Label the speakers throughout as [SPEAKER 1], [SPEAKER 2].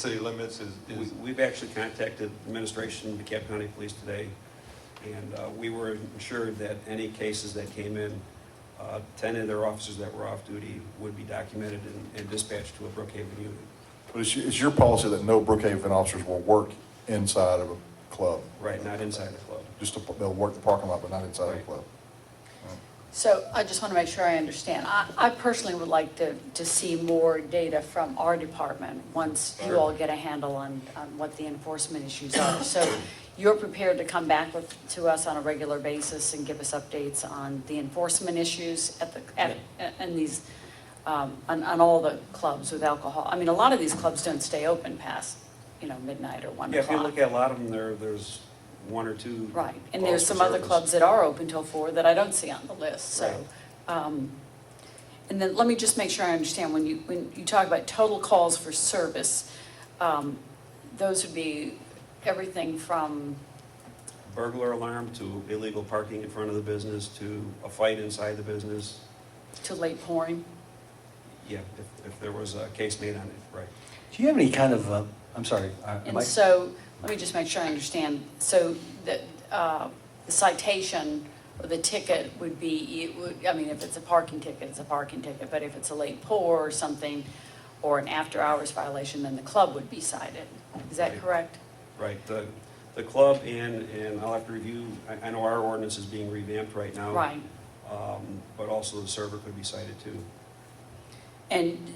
[SPEAKER 1] city limits is,
[SPEAKER 2] We-
[SPEAKER 1] is,
[SPEAKER 2] We've actually contacted administration, DeKalb County Police today, and uh, we were assured that any cases that came in, uh, 10 of their officers that were off duty would be documented and- and dispatched to a Brookhaven unit.
[SPEAKER 3] But it's, it's your policy that no Brookhaven officers will work inside of a club?
[SPEAKER 2] Right, not inside the club.
[SPEAKER 3] Just, to- they'll work the parking lot, but not inside of a
[SPEAKER 2] Right.
[SPEAKER 3] club?
[SPEAKER 4] So I just want to make sure I understand. I, I personally would like to, to see more data from our department once you all get a handle on, on what the enforcement issues are. So you're prepared to come back with, to us on a regular basis and give us updates on the enforcement issues at the, at, and these, um, on, on all the clubs with alcohol? I mean, a lot of these clubs don't stay open past, you know, midnight or one
[SPEAKER 2] Yeah, if you
[SPEAKER 4] o'clock.
[SPEAKER 2] look at a lot of them, there, there's one or two.
[SPEAKER 4] Right,
[SPEAKER 2] calls
[SPEAKER 4] and there's
[SPEAKER 2] for
[SPEAKER 4] some other
[SPEAKER 2] service.
[SPEAKER 4] clubs that are open till four that I don't see on the list, so.
[SPEAKER 2] Right.
[SPEAKER 4] um, And then let me just make sure I understand, when you, when you talk about total calls for service, um, those would be everything from,
[SPEAKER 2] Burglar alarm to illegal parking in front of the business to a fight inside the business.
[SPEAKER 4] to late pouring?
[SPEAKER 2] Yeah, if, if there was a case made on it, right.
[SPEAKER 5] Do you have any kind of, uh, I'm sorry, I- am
[SPEAKER 4] And
[SPEAKER 5] I-
[SPEAKER 4] so, let me just make sure I understand, so the uh, the citation or the ticket would be, it would, I mean, if it's a parking ticket, it's a parking ticket, but if it's a late pour or something, or an after-hours violation, then the club would be cited. Is that
[SPEAKER 2] Right.
[SPEAKER 4] correct?
[SPEAKER 2] Right, the, the club and, and I'll have to review, I, I know our ordinance is being revamped right now.
[SPEAKER 4] Right.
[SPEAKER 2] Um, but also the server could be cited too.
[SPEAKER 4] And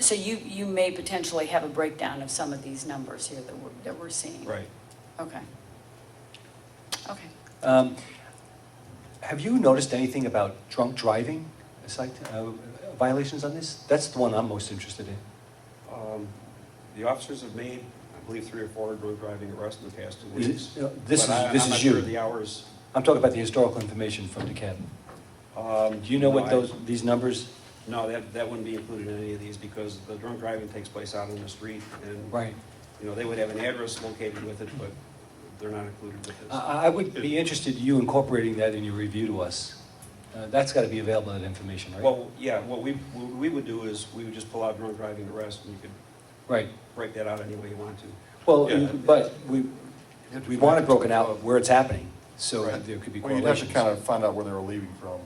[SPEAKER 4] so you, you may potentially have a breakdown of some of these numbers here that we're, that we're seeing.
[SPEAKER 2] Right.
[SPEAKER 4] Okay. Okay.
[SPEAKER 5] um, have you noticed anything about drunk driving cite- uh, violations on this? That's the one I'm most interested in.
[SPEAKER 2] Um, the officers have made, I believe, three or four drunk driving arrests in the past two
[SPEAKER 5] Is it-
[SPEAKER 2] weeks.
[SPEAKER 5] uh, this
[SPEAKER 2] But
[SPEAKER 5] is-
[SPEAKER 2] I-
[SPEAKER 5] this
[SPEAKER 2] I'm
[SPEAKER 5] is
[SPEAKER 2] not
[SPEAKER 5] you.
[SPEAKER 2] sure of the hours.
[SPEAKER 5] I'm talking about the historical information from DeKalb.
[SPEAKER 2] Um,
[SPEAKER 5] Do you know
[SPEAKER 2] no,
[SPEAKER 5] what
[SPEAKER 2] I-
[SPEAKER 5] those, these numbers?
[SPEAKER 2] No, that, that wouldn't be included in any of these because the drunk driving takes place out on the street and.
[SPEAKER 5] Right.
[SPEAKER 2] You know, they would have an address located with it, but they're not included with
[SPEAKER 5] I-
[SPEAKER 2] this.
[SPEAKER 5] I, I would be interested in you incorporating that in your review to us. Uh, That's got to be available, that information, right?
[SPEAKER 2] Well, yeah, what we, what we would do is we would just pull out drunk driving arrest and you could
[SPEAKER 5] Right.
[SPEAKER 2] break that out any way you want to.
[SPEAKER 5] Well,
[SPEAKER 1] Yeah.
[SPEAKER 5] but we, we want it broken out where it's happening, so
[SPEAKER 3] Right.
[SPEAKER 5] there could be
[SPEAKER 3] Well, you'd have to
[SPEAKER 5] correlations.
[SPEAKER 3] kind of find out where they were leaving from.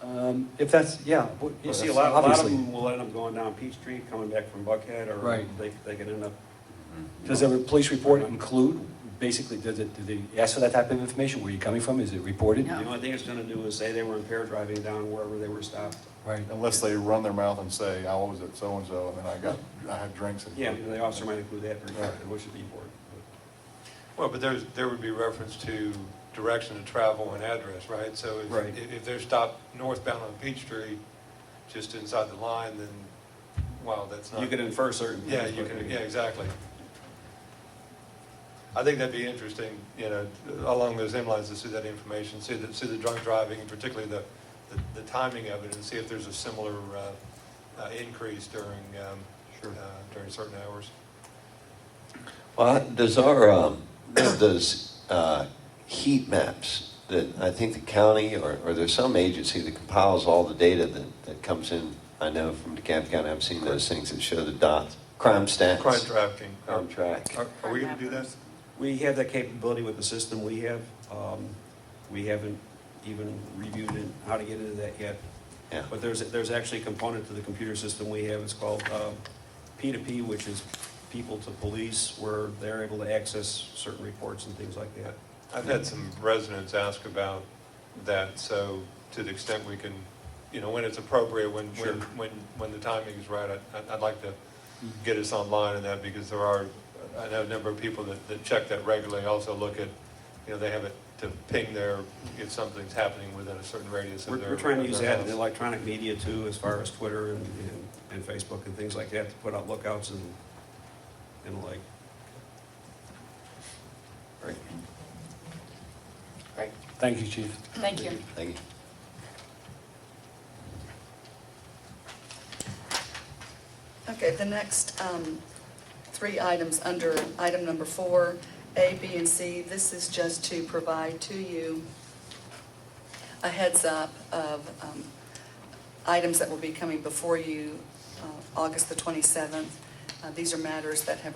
[SPEAKER 5] Um, If that's, yeah. w-
[SPEAKER 2] You see, a lot, a lot of
[SPEAKER 5] obviously.
[SPEAKER 2] them will end up going down Peachtree, coming back from Buckhead, or
[SPEAKER 5] Right.
[SPEAKER 2] they, they could end up,
[SPEAKER 5] Does the police report include, basically, does it, do they ask for that type of information? Where you coming from? Is it reported?
[SPEAKER 2] the
[SPEAKER 4] No.
[SPEAKER 2] only thing it's gonna do is say they were impaired driving down wherever they were stopped.
[SPEAKER 5] Right.
[SPEAKER 3] Unless they run their mouth and say, I was at so-and-so, and then I got, I had drinks and.
[SPEAKER 2] Yeah, the officer might include that, but it should be important.
[SPEAKER 1] well, but there's, there would be reference to direction of travel and address, right? So if-
[SPEAKER 2] Right.
[SPEAKER 1] if, if they're stopped northbound on Peachtree, just inside the line, then, wow, that's not.
[SPEAKER 2] You could infer certain.
[SPEAKER 1] Yeah,
[SPEAKER 2] things,
[SPEAKER 1] you
[SPEAKER 2] but-
[SPEAKER 1] can, yeah, exactly. I think that'd be interesting, you know, along those same lines to see that information, see the, see the drunk driving, and particularly the, the- the timing of it, and see if there's a similar uh, uh, increase during, um,
[SPEAKER 2] Sure.
[SPEAKER 1] uh, during certain hours.
[SPEAKER 6] Well, does our, um, those uh, heat maps that I think the county or, or there's some agency that compiles all the data that, that comes in, I know from DeKalb County, I've seen those things that show the dots, crime stats.
[SPEAKER 1] Crime trafficking. um,
[SPEAKER 6] Crime track.
[SPEAKER 1] Are are we gonna do that?
[SPEAKER 2] We have that capability with the system we have. Um, We haven't even reviewed it, how to get into that yet.
[SPEAKER 6] Yeah.
[SPEAKER 2] But there's, there's actually a component to the computer system we have, it's called uh, P2P, which is people to police, where they're able to access certain reports and things like that.
[SPEAKER 1] I've had some residents ask about that, so to the extent we can, you know, when it's appropriate, when,
[SPEAKER 2] Sure.
[SPEAKER 1] when, when, when the timing is right, I'd- I'd, I'd like to
[SPEAKER 2] Mm-hmm.
[SPEAKER 1] get us online on that, because there are, I know a number of people that, that check that regularly, also look at, you know, they have it to ping their, if something's happening within a certain radius
[SPEAKER 2] We're,
[SPEAKER 1] of their.
[SPEAKER 2] we're trying to
[SPEAKER 1] of
[SPEAKER 2] use
[SPEAKER 1] their
[SPEAKER 2] that in the
[SPEAKER 1] house.
[SPEAKER 2] electronic media too, as far as Twitter and, and- and Facebook and things like that, to put out lookouts and, and like.
[SPEAKER 4] Great.
[SPEAKER 5] Thank you, chief.
[SPEAKER 4] Thank you.
[SPEAKER 6] Thank you.
[SPEAKER 7] Okay, the next um, three items under item number four, A, B, and C, this is just to provide to you a heads up of um, items that will be coming before you uh, August the 27th. Uh, These are matters that have